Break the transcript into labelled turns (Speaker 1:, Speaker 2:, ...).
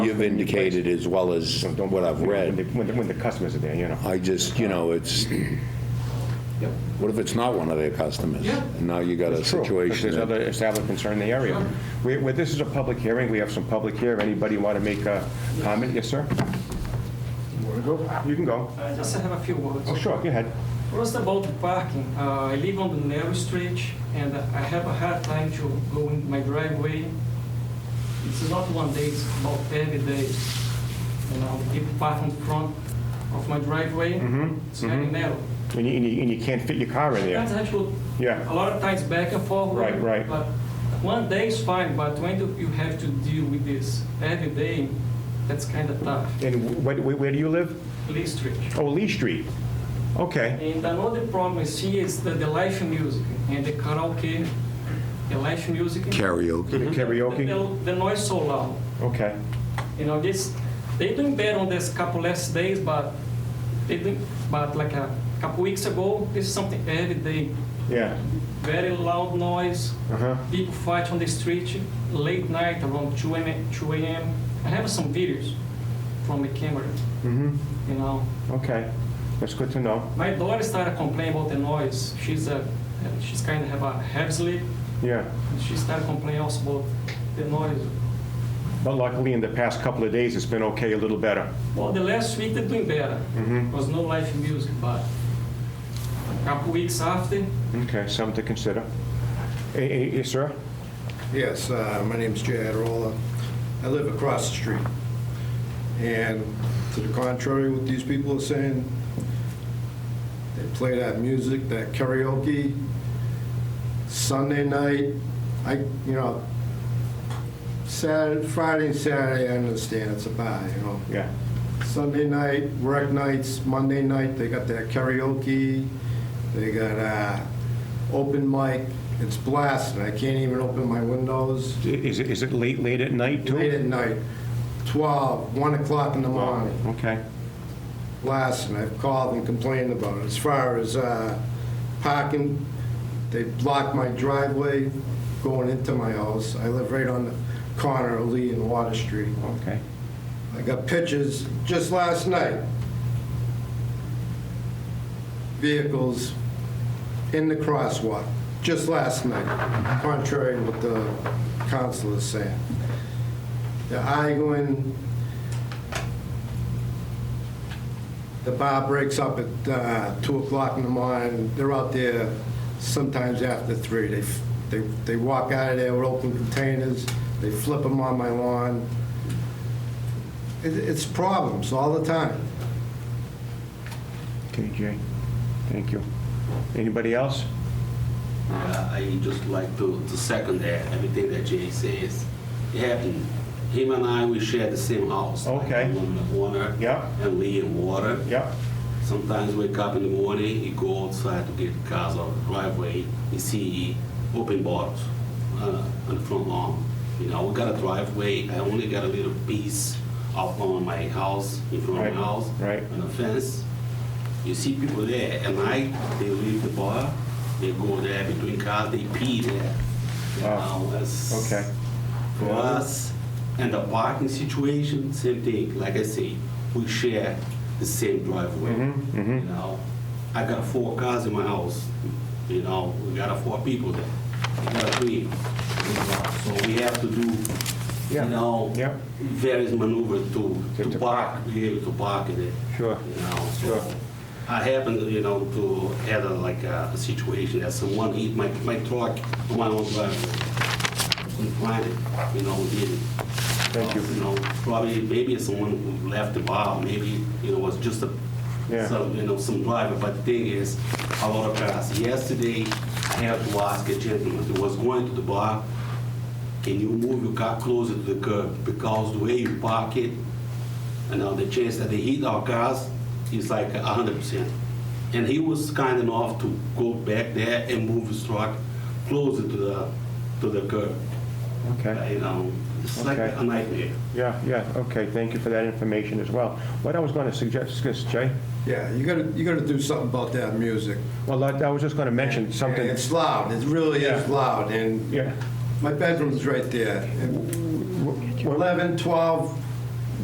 Speaker 1: you've indicated as well as what I've
Speaker 2: When the,
Speaker 1: read.
Speaker 2: when the- when the customers are there, you know.
Speaker 1: I just, you
Speaker 2: Uh,
Speaker 1: know, it's,
Speaker 3: Yep.
Speaker 1: what if it's not one of their customers?
Speaker 3: Yeah.
Speaker 1: And now you got a
Speaker 2: It's true, 'cause
Speaker 1: situation.
Speaker 2: There's
Speaker 1: that-
Speaker 2: other establishments around the area.
Speaker 3: Sure.
Speaker 2: We- we- this is a public hearing, we have some public here. Anybody want to make a comment? Yes, sir? You can go.
Speaker 4: I Uh, just have a few words.
Speaker 2: Oh, sure, go ahead.
Speaker 4: First about the parking, uh, I live on the narrow street and I have a hard time to go in my driveway. It's not one day, it's about every day. You know, people park in front of my driveway.
Speaker 2: Mm-hmm.
Speaker 4: It's very narrow.
Speaker 2: And you, and you- and you can't fit your car in
Speaker 4: That's
Speaker 2: there.
Speaker 4: actually
Speaker 2: Yeah.
Speaker 4: a lot of times back and forth.
Speaker 2: Right, right.
Speaker 4: But one day is fine, but when do you have to deal with this every day, that's kind of tough.
Speaker 2: And where, where do you live?
Speaker 4: Lee Street.
Speaker 2: Oh, Lee Street. Okay.
Speaker 4: And another problem is here is that the live music and the karaoke, the live music.
Speaker 1: Karaoke.
Speaker 2: The karaoke?
Speaker 4: The, the noise so loud.
Speaker 2: Okay.
Speaker 4: You know, this, they doing better on this couple last days, but they doing, but like a couple weeks ago, this is something every day.
Speaker 2: Yeah.
Speaker 4: Very loud noise,
Speaker 2: Uh-huh.
Speaker 4: people fight on the street late night around 2 a.m. 2 a.m. I have some videos from the camera,
Speaker 2: Mm-hmm.
Speaker 4: you know.
Speaker 2: Okay. That's good to know.
Speaker 4: My daughter started complaining about the noise. She's a, she's kind of have a heavy sleep.
Speaker 2: Yeah.
Speaker 4: And she started complaining also about the noise.
Speaker 2: But luckily, in the past couple of days, it's been okay, a little better.
Speaker 4: Well, the last week they're doing better.
Speaker 2: Mhm.
Speaker 4: Was no live music, but a couple weeks after,
Speaker 2: Okay, something to consider. Eh, eh, Yes, sir?
Speaker 5: Yes, uh, my name's Jay Adirola. I live across the street. And to the contrary, what these people are saying, they play that music, that karaoke, Sunday night, I, you know, Saturday, Friday and Saturday, I understand, it's a bar, you know.
Speaker 2: Yeah.
Speaker 5: Sunday night, work nights, Monday night, they got their karaoke, they got uh, open mic, it's blasting, I can't even open my windows.
Speaker 2: Is it, is it late, late at night, too?
Speaker 5: Late at night, 12, 1 o'clock in the morning,
Speaker 2: Okay.
Speaker 5: blasting, I've called and complained about it. As far as uh, parking, they blocked my driveway going into my house, I live right on the corner of Lee and Water Street.
Speaker 2: Okay.
Speaker 5: I got pictures just last night. Vehicles in the crosswalk, just last night, contrary to what the council is saying. They're arguing. The bar breaks up at uh, 2 o'clock in the morning. They're out there sometimes after 3. They f- They they walk out of there with open containers. They flip them on my lawn. It- It's problems all the time.
Speaker 2: Okay, Jay. Thank you. Anybody else?
Speaker 3: Uh, I just like to, to second that, everything that Jay says. It happened, him and I, we share the same house.
Speaker 2: Okay.
Speaker 3: Like, One in the corner.
Speaker 2: Yeah.
Speaker 3: And Lee and Water.
Speaker 2: Yeah.
Speaker 3: Sometimes wake up in the morning, you go outside to get cars out of the driveway, you see open bottles uh, on the front lawn. You know, we got a driveway, I only got a little piece out on my house, in front of
Speaker 2: Right,
Speaker 3: my house.
Speaker 2: right.
Speaker 3: On the fence. You see people there at night, they leave the bar, they go there between cars, they pee there. You
Speaker 2: Wow.
Speaker 3: know, that's-
Speaker 2: Okay.
Speaker 3: for us and the parking situation, same thing. Like I say, we share the same driveway.
Speaker 2: Mm-hmm,
Speaker 3: You know, I got four cars in my house. You know, we got four people there. We got three. you know, So we have to do,
Speaker 2: Yeah.
Speaker 3: you know,
Speaker 2: Yeah.
Speaker 3: various maneuvers to
Speaker 2: To- to
Speaker 3: to park, be able to park in it.
Speaker 2: Sure.
Speaker 3: You know,
Speaker 2: Sure.
Speaker 3: so I happened, you know, to had a, like a situation that someone hit my my truck on my own driveway and find it, you know, we did it.
Speaker 2: Thank you.
Speaker 3: You know, probably, maybe it's someone who left the bar, maybe, you know, it was just a,
Speaker 2: Yeah.
Speaker 3: some, you know, some driver, but the thing is, a lot of cars. Yesterday, I had to ask a gentleman who was going to the bar, can you move your car closer to the curb? Because the way you park it, you know, the chance that they hit our cars is like hundred percent. And he was kind enough to go back there and move his truck closer to the, to the curb. Uh,
Speaker 2: Okay.
Speaker 3: you know, it's like
Speaker 2: Okay.
Speaker 3: a nightmare.
Speaker 2: Yeah, yeah, okay. Thank you for that information as well. What I was going to suggest, yes, Jay?
Speaker 5: Yeah, you gotta, you gotta do something about that music.
Speaker 2: Well, I I was just going to mention something.
Speaker 5: It's loud, it really is
Speaker 2: Yeah.
Speaker 5: loud, and
Speaker 2: Yeah.
Speaker 5: my bedroom's right there. And 11, 12,